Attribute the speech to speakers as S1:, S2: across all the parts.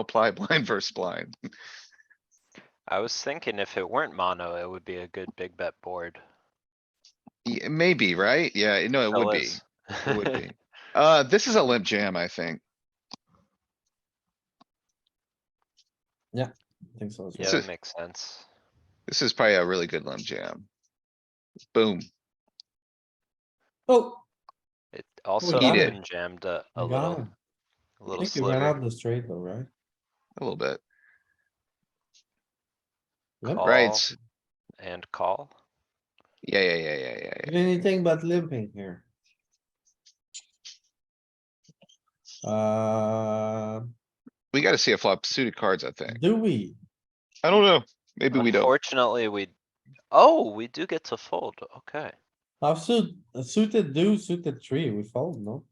S1: apply blind versus blind.
S2: I was thinking if it weren't mono, it would be a good big bet board.
S1: Yeah, Maybe, right? Yeah, no, it would be.
S2: Fellas.
S1: It would be. Uh, this is a limp jam, I think.
S3: I think so as well.
S2: Yeah,
S1: So-
S2: it makes sense.
S1: This is probably a really good limp jam. Boom.
S3: Oh,
S2: It also
S3: got
S1: it.
S2: open jammed a, a
S3: you got
S2: little,
S3: him.
S2: a
S3: I
S2: little
S3: think you ran out
S2: sliver.
S3: the straight though, right?
S1: A little bit,
S3: Limp?
S2: Call.
S1: right?
S2: All
S1: s-
S2: And call.
S1: Yeah, yeah, yeah, yeah, yeah, yeah.
S3: Did Anything but limping here. Uh,
S1: We gotta see a flop suited cards, I think.
S3: do we?
S1: I don't know. Maybe we don't.
S2: Unfortunately, we, oh, we do get to fold, okay.
S3: Offsuit, uh, suited do, suited three, we fold, no?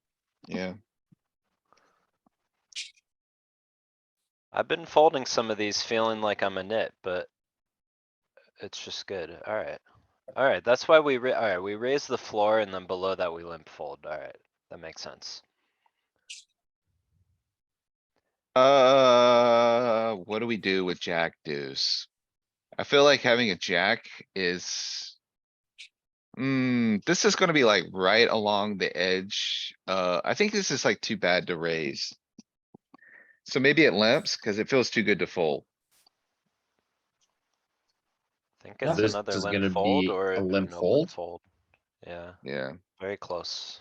S1: Yeah,
S2: I've been folding some of these feeling like I'm a nit, but it's just good, alright. Alright, that's why we, ra- alright, we raise the floor and then below that we limp fold, alright, that makes sense.
S1: uh, what do we do with jack deuce? I feel like having a jack is. Hmm, this is gonna be like right along the edge. Uh, I think this is like too bad to raise. So maybe it limps cuz it feels too good to fold.
S2: Think
S3: Yeah.
S2: it's
S4: This
S2: another
S4: is gonna
S2: limp fold
S4: be
S2: or
S4: a
S2: an
S4: limp
S2: open
S4: fold?
S2: fold, yeah.
S1: Yeah,
S2: Very close.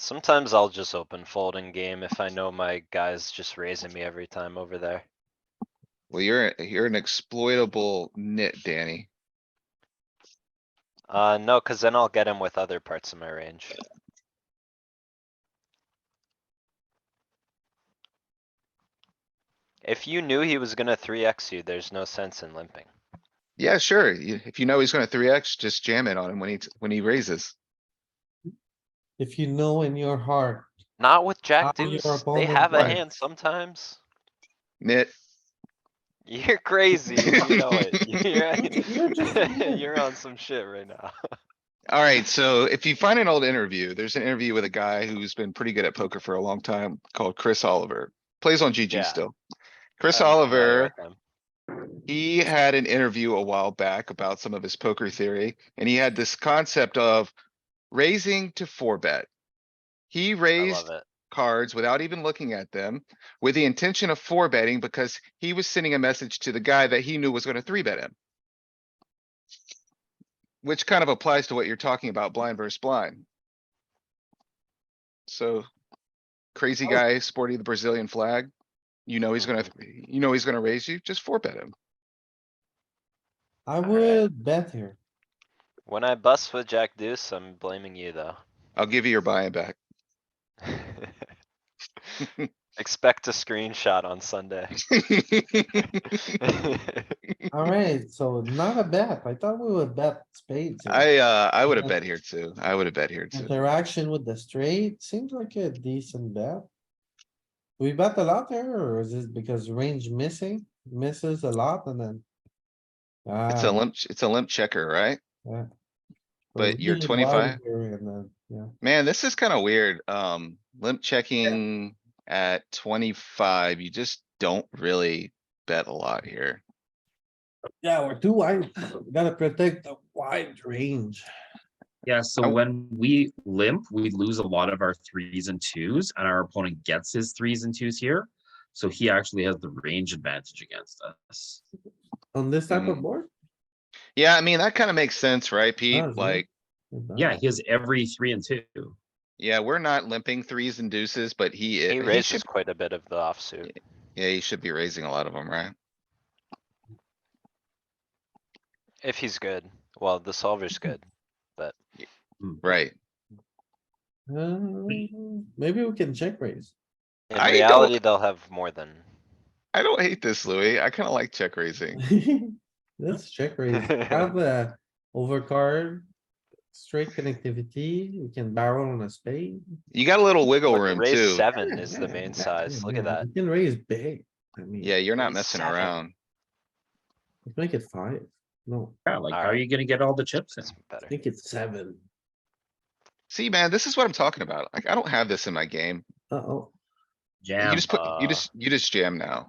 S2: Sometimes I'll just open folding game if I know my guy's just raising me every time over there.
S1: well, you're, a- you're an exploitable nit, Danny.
S2: Uh, no, cuz then I'll get him with other parts of my range. If you knew he was gonna three X you, there's no sense in limping.
S1: Yeah, sure. you- If you know he's gonna three X, just jam it on him when he, t- when he raises.
S3: If you know in your heart,
S2: Not with
S3: How
S2: jack
S3: your
S2: deuce, they
S3: opponent
S2: have a
S1: won.
S2: hand sometimes.
S1: Nit.
S2: You're crazy, and you know it.
S3: You're just a
S2: You're-
S3: man.
S2: You're on some shit right now.
S1: Alright, so if you find an old interview, there's an interview with a guy who's been pretty good at poker for a long time called Chris Oliver. Plays on
S2: Yeah.
S1: GG still. Chris
S2: I'm familiar
S1: Oliver,
S2: with them.
S1: he had an interview a while back about some of his poker theory, and he had this concept of raising to four bet. He
S2: I
S1: raised
S2: love it.
S1: cards without even looking at them with the intention of four betting because he was sending a message to the guy that he knew was gonna three bet him. Which kind of applies to what you're talking about blind versus blind. So crazy
S3: Oh.
S1: guy sporting the Brazilian flag, you know he's gonna, you know he's gonna raise you, just four bet him.
S3: I
S2: right.
S3: would bet here.
S2: When I bust with Jack Deuce, I'm blaming you though.
S1: I'll give you your buy-in back.
S2: Expect a screenshot on Sunday.
S3: Alright, so not a bet. I thought we would bet spades. here.
S1: I, uh, I would have bet here too. I would have bet here too.
S3: Interaction with the straight seems like a decent bet. We bet a lot there, or is it because range missing, misses a lot and then?
S1: It's a
S3: Ah,
S1: limp, it's a limp checker, right?
S3: yeah.
S1: but
S3: We're
S1: you're
S3: really wide
S1: 25.
S3: here and then, Yeah,
S1: Man, this is kinda weird. Um, limp checking at twenty-five, you just don't really bet a lot here.
S3: yeah, we're too wide. We Gotta protect the wide range.
S4: Yeah, so
S1: Oh.
S4: when we limp, we lose a lot of our threes and twos, and our opponent gets his threes and twos here. So he actually has the range advantage against us.
S3: On this type of
S1: Mm.
S3: board?
S1: Yeah, I mean, that kinda makes sense, right, Pete?
S3: does, yeah.
S1: Like,
S3: It does.
S4: Yeah, he has every three and two.
S1: yeah, we're not limping threes and deuces, but he
S2: He
S1: is, he should,
S2: raises quite a bit of the offsuit.
S1: yeah, he should be raising a lot of them, right?
S2: If he's good. Well, the solver's good.
S1: Right.
S3: Um, Maybe we can check raise.
S2: In
S1: I don't-
S2: reality, they'll have more than.
S1: I don't hate this, Louis. I kinda like check raising.
S3: Let's check raise. Have a overcard, straight connectivity, we can barrel on a spade.
S1: You got a little wiggle
S2: Look,
S1: room
S2: Raise
S1: too.
S2: seven is the main
S3: Yeah,
S2: size. Look at
S3: yeah,
S2: that.
S3: You can raise big. I mean,
S1: Yeah, you're not
S2: raise
S1: messing
S2: seven.
S1: around.
S3: let's Make it five. No,
S4: Yeah, like how are
S2: Alright.
S4: you gonna get all the chips in?
S2: That's
S3: I
S2: better.
S3: think it's seven.
S1: See, man, this is what I'm talking about. Like, I don't have this in my game.
S3: Uh-oh.
S1: You
S4: Jam.
S1: just put, you
S2: uh,
S1: just, you just jam now.